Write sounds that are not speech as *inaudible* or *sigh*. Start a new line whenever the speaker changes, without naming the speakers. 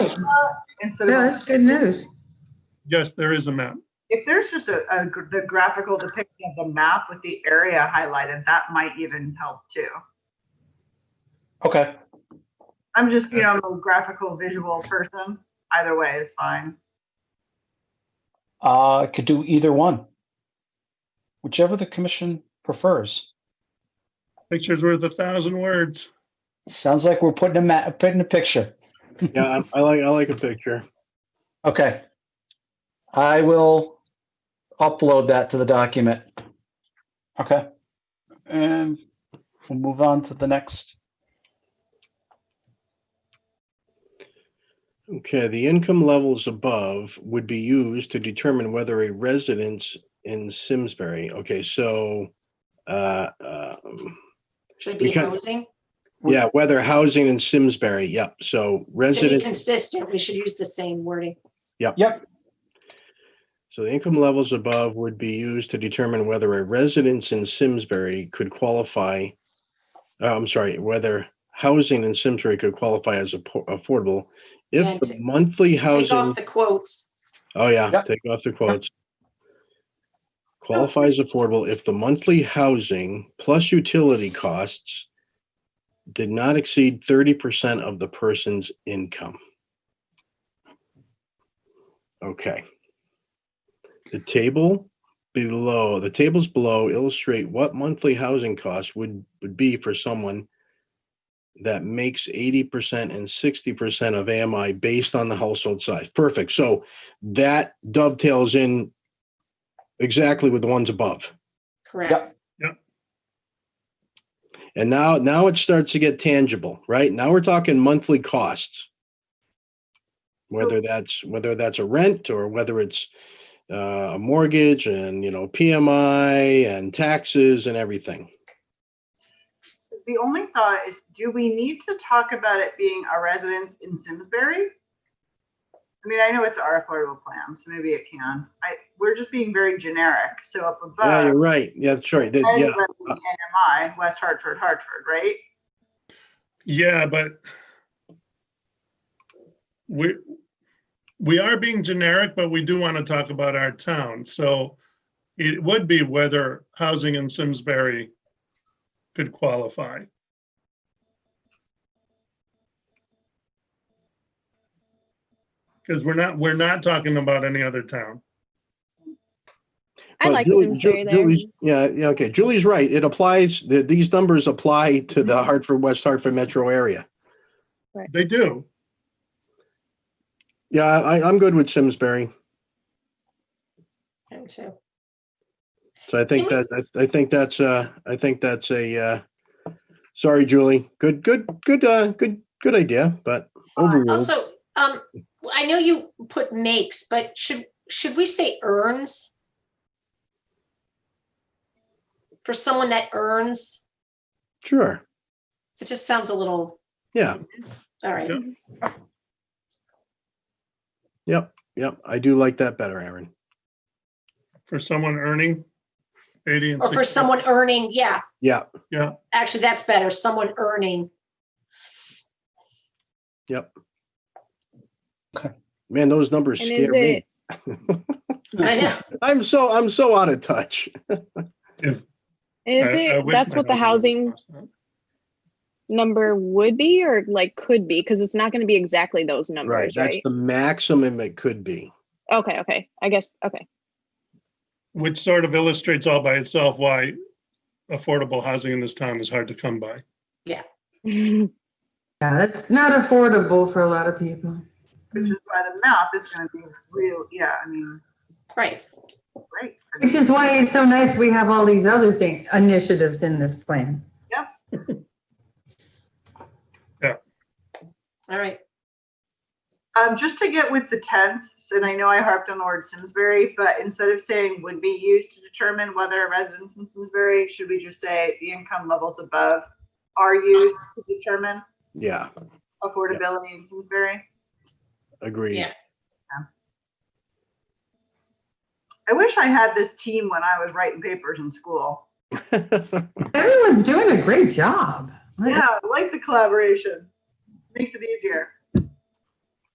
instead
Yeah,
of,
that's good news.
Yes, there is a map.
if there's just a, a, gr- the graphical depiction of the map with the area highlighted, that might even help too.
Okay,
I'm just, you know, I'm a graphical visual person. Either way is fine.
uh, could do either one. Whichever the commission prefers.
Picture's worth a thousand words.
Sounds like we're putting a ma, putting a picture.
Yeah, I'm- I like, I like a picture.
Okay. I will upload that to the document. Okay. And we'll move on to the next.
Okay, the income levels above would be used to determine whether a residence in Simsbury, okay, so, uh, um,
Should be
Because-
housing,
yeah, whether housing in Simsbury, yep, so
to be
resident,
consistent, we should use the same wording.
so the income levels above would be used to determine whether a residence in Simsbury could qualify, uh, I'm sorry, whether housing in Simsbury could qualify as affo- affordable if the
And
monthly housing.
Take off the quotes,
Oh, yeah,
Yep.
take off the quotes. Qualifies affordable if the monthly housing plus utility costs did not exceed thirty percent of the person's income. Okay. The table below, the tables below illustrate what monthly housing costs would, would be for someone that makes eighty percent and sixty percent of AMI based on the household size. Perfect. So that dovetails in exactly with the ones above.
correct?
And now, now it starts to get tangible, right? Now we're talking monthly costs. Whether that's, whether that's a rent or whether it's uh, a mortgage and, you know, PMI and taxes and everything.
The only thought is, do we need to talk about it being a residence in Simsbury? I mean, I know it's our affordable plan, so maybe it can. I, we're just being very generic. So up
Ah.
Yeah, you're
above,
right. Yeah, that's right. That- yeah.
residence in NMI, West Hartford, Hartford, right?
Yeah, but we, we are being generic, but we do want to talk about our town. So it would be whether housing in Simsbury could qualify. Because we're not, we're not talking about any other town.
I
But
like
Julie-
Simsbury
Ju-
there.
Julie's- Yeah, yeah, okay. Julie's right. It applies, th- these numbers apply to
Mm-hmm.
the Hartford, West Hartford metro area.
They do.
Yeah, I, I'm good with Simsbury.
Him too.
So I think that, that's- I think that's, uh, I think that's a, uh, sorry, Julie. Good, good, good, uh, good, good idea, but overruled.
Also, um, I know you put makes, but should, should we say earns? For someone that earns,
Sure.
it just sounds a little,
Yeah,
all right,
Yeah.
yep. I do like that better, Aaron.
For someone earning 80 and
or
60.
for someone earning, yeah,
Yeah,
actually, that's better, someone earning.
man, those numbers
And
scare
is
me.
it,
I know,
I'm so, I'm so out of touch.
is
I- I
it,
wish
that's
my
what the
housing
housing
was like
number would be or like could be? Because it's not going to be exactly those
Right,
numbers,
that's
right?
the maximum it could be.
Okay, okay. I guess, okay. *laughs*
that. Which sort of illustrates all by itself why affordable housing in this town is hard to come by.
Yeah, that's not affordable for a lot of people.
Which is why the map is gonna be real, yeah, I mean,
right,
great.
Which is why it's so nice we have all these other things, initiatives in this plan.
all right,
Um, just to get with the tense, and I know I harped on the word Simsbury, but instead of saying would be used to determine whether a residence in Simsbury, should we just say the income levels above are used to determine
Yeah,
affordability in Simsbury?
agreed.
Yeah.
I wish I had this team when I was writing papers in school.
*laughs*
Everyone's doing a great job.
Yeah, I like the collaboration. Makes it easier.